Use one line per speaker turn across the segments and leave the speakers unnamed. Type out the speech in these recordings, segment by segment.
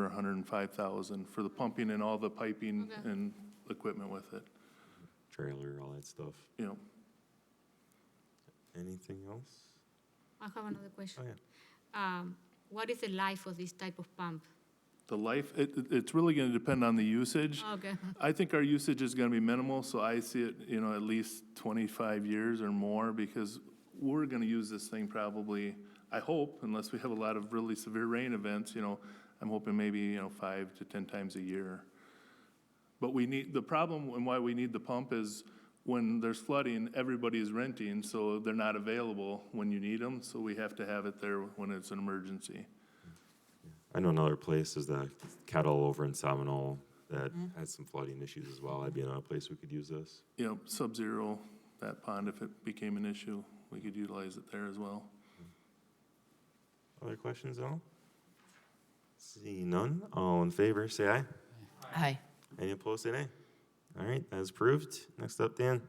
for 105,000 for the pumping and all the piping
Okay.
and equipment with it,
trailer, all that stuff.
you know.
Anything else?
I have another question.
Oh, yeah.
Um, What is the life of this type of pump?
The life, it, it- it's really going to depend on the usage.
Okay,
I think our usage is going to be minimal, so I see it, you know, at least 25 years or more because we're going to use this thing probably, I hope, unless we have a lot of really severe rain events, you know, I'm hoping maybe, you know, five to 10 times a year. But we need, the problem and why we need the pump is when there's flooding, everybody's renting, so they're not available when you need them. So we have to have it there when it's an emergency.
I know another place is the kettle over in Seminole that had some flooding issues as well. That'd be another place we could use this.
You know, sub-zero, that pond, if it became an issue, we could utilize it there as well.
Other questions at all? See none. All in favor, say aye.
Aye.
Any opposed, say nay. All right, that is approved. Next up, Dan.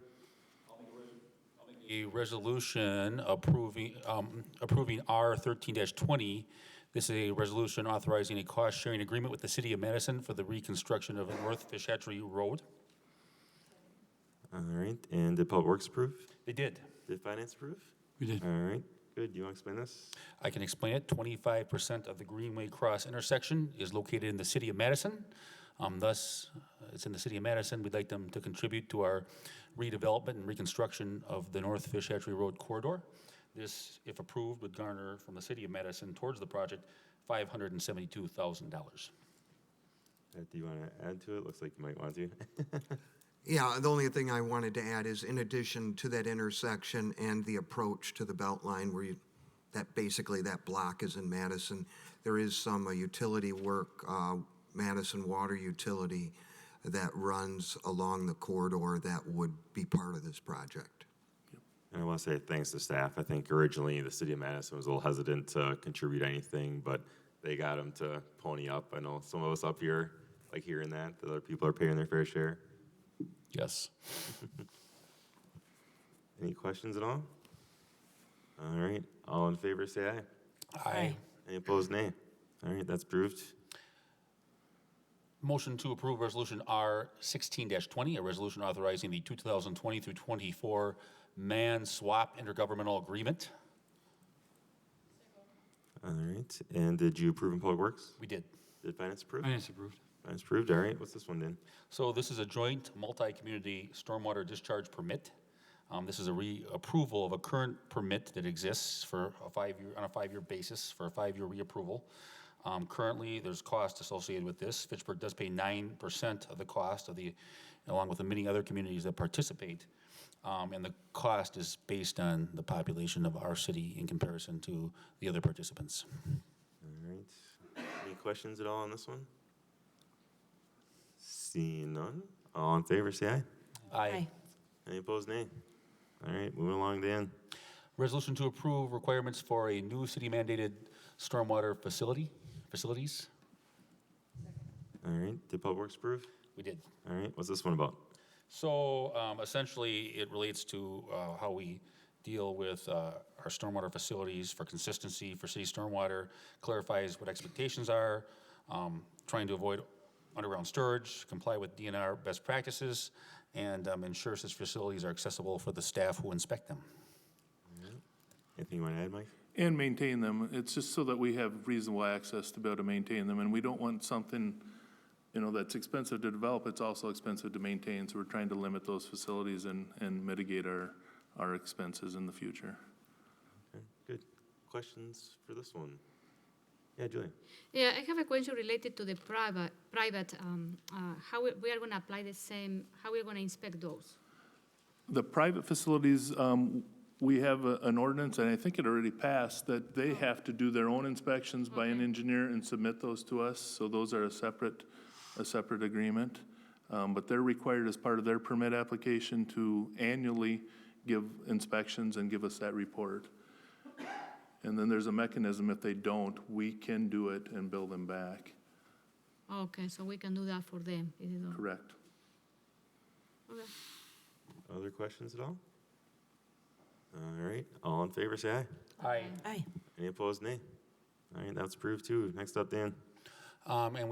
a resolution approving, um, approving R thirteen twenty. This is a resolution authorizing a cost-sharing agreement with the city of Madison for the reconstruction of North Fish Hatchery Road.
All right, and did Public Works approve?
They did.
Did Finance approve? We did. All right, good. Do you want to explain this?
I can explain it. Twenty-five percent of the Greenway Cross intersection is located in the city of Madison. Um, thus, uh, it's in the city of Madison. We'd like them to contribute to our redevelopment and reconstruction of the North Fish Hatchery Road corridor. This, if approved, would garner from the city of Madison towards the project five hundred and seventy-two thousand dollars.
Uh, Do you want to add to it? Looks like you might want to.
Yeah, the only thing I wanted to add is in addition to that intersection and the approach to the Beltline where you, that basically that block is in Madison, there is some uh, utility work, uh, Madison Water Utility, that runs along the corridor that would be part of this project.
And I want to say thanks to staff. I think originally the city of Madison was a little hesitant to contribute anything, but they got them to pony up. I know some of us up here like hearing that, that other people are paying their fair share.
Yes.
Any questions at all? All right, all in favor, say aye.
Aye.
Any opposed, nay. All right, that's approved.
Motion to approve Resolution R sixteen twenty, a resolution authorizing the two thousand twenty through twenty-four man swap intergovernmental agreement.
All right, and did you approve in Public Works?
We did.
Did Finance approve?
Finance approved.
Finance approved, all right. What's this one, Dan?
So this is a joint multi-community stormwater discharge permit. Um, this is a reapproval of a current permit that exists for a five-year, on a five-year basis, for a five-year reapproval. Um, currently, there's cost associated with this. Fitchburg does pay nine percent of the cost of the, along with the many other communities that participate. Um, and the cost is based on the population of our city in comparison to the other participants.
All right. Any questions at all on this one? Seeing none, all in favor, say aye.
Aye.
Any opposed, nay? All right, moving along, Dan.
Resolution to approve requirements for a new city mandated stormwater facility, facilities.
All right, did Public Works approve?
We did.
All right, what's this one about?
So um, essentially, it relates to uh, how we deal with uh, our stormwater facilities for consistency for city stormwater, clarifies what expectations are, um, trying to avoid underground storage, comply with DNR best practices, and um, ensures its facilities are accessible for the staff who inspect them.
Anything you want to add, Mike?
And maintain them. It's just so that we have reasonable access to be able to maintain them, and we don't want something, you know, that's expensive to develop, it's also expensive to maintain, so we're trying to limit those facilities and, and mitigate our, our expenses in the future.
Okay, good. Questions for this one? Yeah, Julia.
yeah, I have a question related to the private, private, um, uh, how we- we are gonna apply the same, how we're gonna inspect those?
The private facilities, um, we have a- an ordinance, and I think it already passed, that they have to do their own inspections by an engineer and submit those to us, so those are a separate, a separate agreement. Um, But they're required as part of their permit application to annually give inspections and give us that report. And then there's a mechanism, if they don't, we can do it and bill them back,
Okay, so we can do that for them, if they don't-
correct?
Okay.
Other questions at all? All right, all in favor, say aye.
Aye.
Aye.
Any opposed, nay? All right, that's approved too. Next up, Dan.
Um, And we